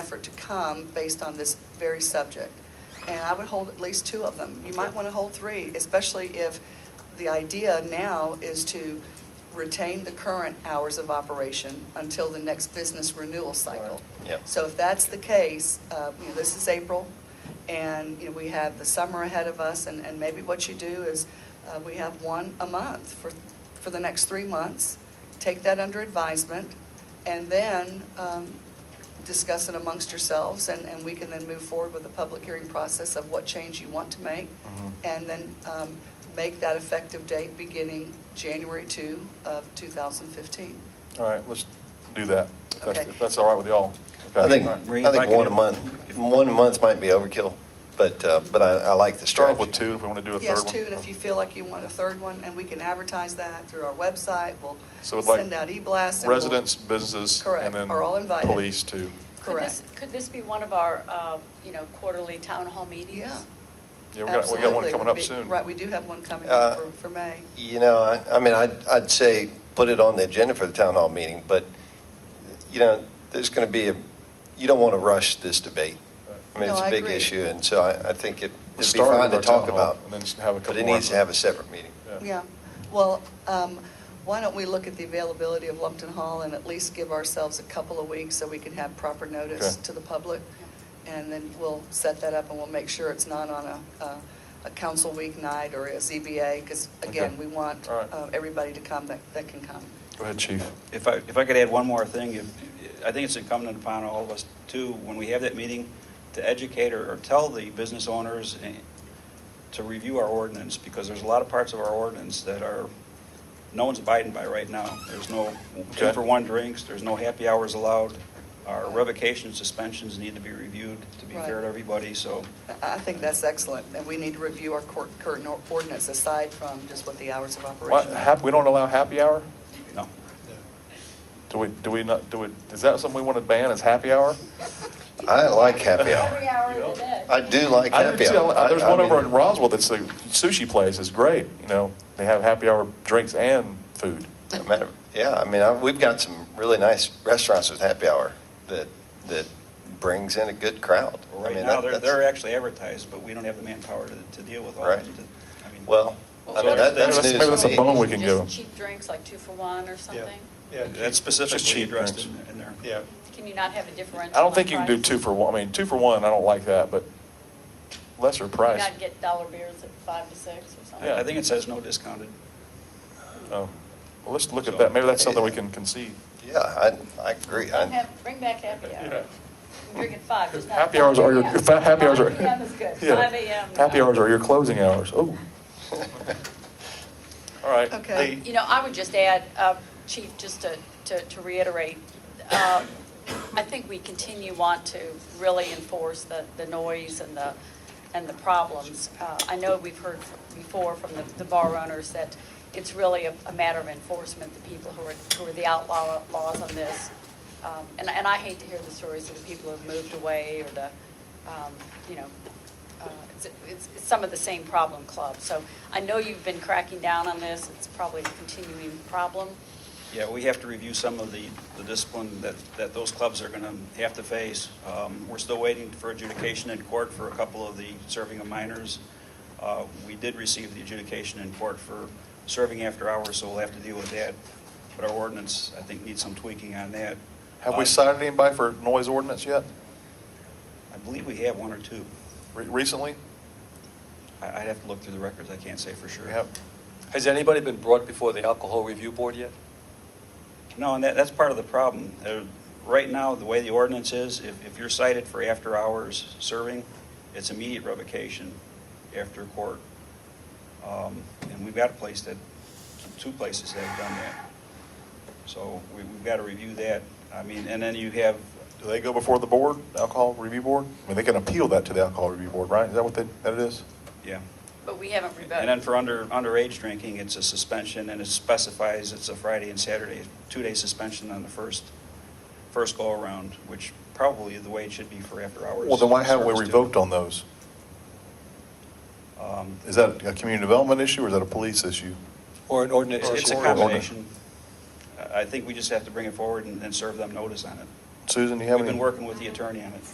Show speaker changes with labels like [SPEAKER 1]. [SPEAKER 1] effort to come based on this very subject. And I would hold at least two of them. You might want to hold three, especially if the idea now is to retain the current hours of operation until the next business renewal cycle.
[SPEAKER 2] Right. Yep.
[SPEAKER 1] So if that's the case, uh, you know, this is April, and, you know, we have the summer ahead of us, and, and maybe what you do is, uh, we have one a month for, for the next three months, take that under advisement, and then um, discuss it amongst yourselves, and, and we can then move forward with the public hearing process of what change you want to make,
[SPEAKER 2] Mhm.
[SPEAKER 1] and then um, make that effective date beginning January 2 of 2015.
[SPEAKER 2] All right, let's do that. If that's-
[SPEAKER 1] Okay.
[SPEAKER 2] If that's all right with y'all.
[SPEAKER 3] I
[SPEAKER 2] Okay.
[SPEAKER 3] think,
[SPEAKER 2] All right.
[SPEAKER 4] Maureen,
[SPEAKER 3] I
[SPEAKER 4] if I
[SPEAKER 3] think
[SPEAKER 4] could
[SPEAKER 3] one a
[SPEAKER 4] do-
[SPEAKER 3] month, one a month might be overkill, but, uh, but I, I like the
[SPEAKER 2] Start
[SPEAKER 3] strategy.
[SPEAKER 2] off with two, if we want to do a third
[SPEAKER 1] Yes,
[SPEAKER 2] one.
[SPEAKER 1] two, and if you feel like you want a third one, and we can advertise that through our website, we'll
[SPEAKER 2] So we'd like
[SPEAKER 1] send out e-blasts. and we'll-
[SPEAKER 2] Residents, businesses, and
[SPEAKER 1] Correct,
[SPEAKER 2] then
[SPEAKER 1] are all invited.
[SPEAKER 2] police too.
[SPEAKER 5] Could this,
[SPEAKER 1] Correct.
[SPEAKER 5] could this be one of our, uh, you know, quarterly town hall meetings?
[SPEAKER 1] Yeah.
[SPEAKER 2] Yeah, we got, we got one
[SPEAKER 1] Absolutely.
[SPEAKER 2] coming up
[SPEAKER 1] We-
[SPEAKER 2] soon.
[SPEAKER 1] Right, we do have one coming
[SPEAKER 3] Uh,
[SPEAKER 1] up for, for May.
[SPEAKER 3] You know, I, I mean, I'd, I'd say put it on the agenda for the town hall meeting, but, you know, there's going to be a, you don't want to rush this debate. I mean,
[SPEAKER 1] No,
[SPEAKER 3] it's
[SPEAKER 1] I
[SPEAKER 3] a big
[SPEAKER 1] agree.
[SPEAKER 3] issue, and so I, I think it-
[SPEAKER 2] We'll
[SPEAKER 3] it'd be
[SPEAKER 2] start
[SPEAKER 3] fine
[SPEAKER 2] with
[SPEAKER 3] to
[SPEAKER 2] our town
[SPEAKER 3] talk
[SPEAKER 2] hall
[SPEAKER 3] about.
[SPEAKER 2] and then just have a couple
[SPEAKER 3] But it
[SPEAKER 2] more.
[SPEAKER 3] needs to have a separate meeting.
[SPEAKER 1] Yeah, well, um, why don't we look at the availability of Lumpton Hall and at least give ourselves a couple of weeks so we can have proper notice
[SPEAKER 2] Okay.
[SPEAKER 1] to the public? And then we'll set that up and we'll make sure it's not on a, a- a council week night or a ZBA, because again,
[SPEAKER 2] Okay.
[SPEAKER 1] we want
[SPEAKER 2] All right.
[SPEAKER 1] uh, everybody to come that, that can come.
[SPEAKER 2] Go ahead, chief.
[SPEAKER 4] If I, if I could add one more thing, if- I think it's incumbent upon all of us too, when we have that meeting, to educate or or tell the business owners eh, to review our ordinance, because there's a lot of parts of our ordinance that are, no one's abiding by right now. There's no
[SPEAKER 2] Okay.
[SPEAKER 4] two-for-one drinks, there's no happy hours allowed. Our revocation suspensions need to be reviewed to be fair
[SPEAKER 1] Right.
[SPEAKER 4] to everybody, so.
[SPEAKER 1] I I think that's excellent, and we need to review our court, current or- ordinance aside from just what the hours of
[SPEAKER 2] What,
[SPEAKER 1] operation. are.
[SPEAKER 2] hap, we don't allow happy hour?
[SPEAKER 4] No.
[SPEAKER 2] Do we, do we not, do we, is that something we want to ban is happy hour?
[SPEAKER 3] I like happy
[SPEAKER 5] Every
[SPEAKER 3] hour.
[SPEAKER 5] hour of the day.
[SPEAKER 3] I do like
[SPEAKER 2] I didn't
[SPEAKER 3] happy
[SPEAKER 2] see-
[SPEAKER 3] hour. I-
[SPEAKER 2] There's
[SPEAKER 3] I
[SPEAKER 2] one over
[SPEAKER 3] mean-
[SPEAKER 2] in Roswell that's a sushi place, it's great, you know, they have happy hour drinks and food.
[SPEAKER 3] No matter- Yeah, I mean, I- we've got some really nice restaurants with happy hour that, that brings in a good crowd. I
[SPEAKER 4] Right
[SPEAKER 3] mean, that-
[SPEAKER 4] now, they're,
[SPEAKER 3] that's-
[SPEAKER 4] they're actually advertised, but we don't have the manpower to, to deal with all
[SPEAKER 3] Right.
[SPEAKER 4] of them. to- I mean-
[SPEAKER 3] Well, I mean, that- that's
[SPEAKER 2] Maybe
[SPEAKER 3] news
[SPEAKER 2] that's- maybe
[SPEAKER 3] to
[SPEAKER 2] that's a bone
[SPEAKER 3] me.
[SPEAKER 2] we can go.
[SPEAKER 5] Just cheap drinks, like two for one or something?
[SPEAKER 6] Yeah,
[SPEAKER 4] That's specifically
[SPEAKER 2] cheap
[SPEAKER 4] addressed
[SPEAKER 2] drinks.
[SPEAKER 4] in in there.
[SPEAKER 6] yeah.
[SPEAKER 5] Can you not have a differential?
[SPEAKER 2] I don't
[SPEAKER 5] on
[SPEAKER 2] think you can do
[SPEAKER 5] price?
[SPEAKER 2] two for one, I mean, two for one, I don't like that, but lesser
[SPEAKER 5] Can you
[SPEAKER 2] price.
[SPEAKER 5] not get dollar beers at five to six or something?
[SPEAKER 2] Yeah.
[SPEAKER 4] I think it says no discounted.
[SPEAKER 2] Oh. Well, let's look at that, maybe that's something we can concede.
[SPEAKER 3] Yeah, I, I agree.
[SPEAKER 5] Don't
[SPEAKER 3] I-
[SPEAKER 5] have- Bring back happy hour. Drink at five, just not.
[SPEAKER 2] Happy hours are your,
[SPEAKER 5] 5
[SPEAKER 2] if that happy hours are.
[SPEAKER 5] 5 PM is good,
[SPEAKER 2] Yeah.
[SPEAKER 5] five AM. no.
[SPEAKER 2] Happy hours are your closing hours, oh. All right.
[SPEAKER 1] Okay.
[SPEAKER 2] the-
[SPEAKER 5] You know, I would just add, uh, Chief, just to to to reiterate, uh, I think we continue want to really enforce the the noise and the, and the problems. Uh, I know we've heard f- before from the- the bar owners that it's really a a matter of enforcement, the people who are, who are the outlaw laws on this. Um, And and I hate to hear the stories of the people who've moved away or the, um, you know, uh, it's- it's it's some of the same problem clubs. So I know you've been cracking down on this, it's probably a continuing problem.
[SPEAKER 4] Yeah, we have to review some of the, the discipline that, that those clubs are going to have to face. Um, We're still waiting for adjudication in court for a couple of the serving of minors. Uh, We did receive the adjudication in court for serving after hours, so we'll have to deal with that. But our ordinance, I think, needs some tweaking on that.
[SPEAKER 2] Have we
[SPEAKER 4] Uh,
[SPEAKER 2] cited anybody for noise ordinance yet,
[SPEAKER 4] I believe we have one or two.
[SPEAKER 2] Re- recently?
[SPEAKER 4] I- I'd have to look through the records, I can't say for sure.
[SPEAKER 2] We have,
[SPEAKER 7] Has anybody been brought before the Alcohol Review Board yet?
[SPEAKER 4] No, and that, that's part of the problem. Uh, Right now, the way the ordinance is, if, if you're cited for after-hours serving, it's immediate revocation after court. Um, And we've got a place that, two places that have done that. So we, we've got to review that. I mean, and then you have,
[SPEAKER 2] do they go before the board, alcohol review board? I mean, they can appeal that to the alcohol review board, right? Is that what they, that it is?
[SPEAKER 4] yeah.
[SPEAKER 5] But we haven't revoked.
[SPEAKER 4] And then for under, underage drinking, it's a suspension, and it specifies it's a Friday and Saturday, two-day suspension on the first, first go-around, which probably the way it should be for after-hours.
[SPEAKER 2] Well, then why haven't we
[SPEAKER 4] service, too.
[SPEAKER 2] revoked on those?
[SPEAKER 4] Um,
[SPEAKER 2] Is that a community development issue or is that a police issue?
[SPEAKER 7] Or an ordinance?
[SPEAKER 4] It's it's a
[SPEAKER 2] Or- or-
[SPEAKER 4] combination. I I think we just have to bring it forward and and serve them notice on it.
[SPEAKER 2] Susan, do you have
[SPEAKER 4] We've
[SPEAKER 2] any?
[SPEAKER 4] been working with the attorney on it.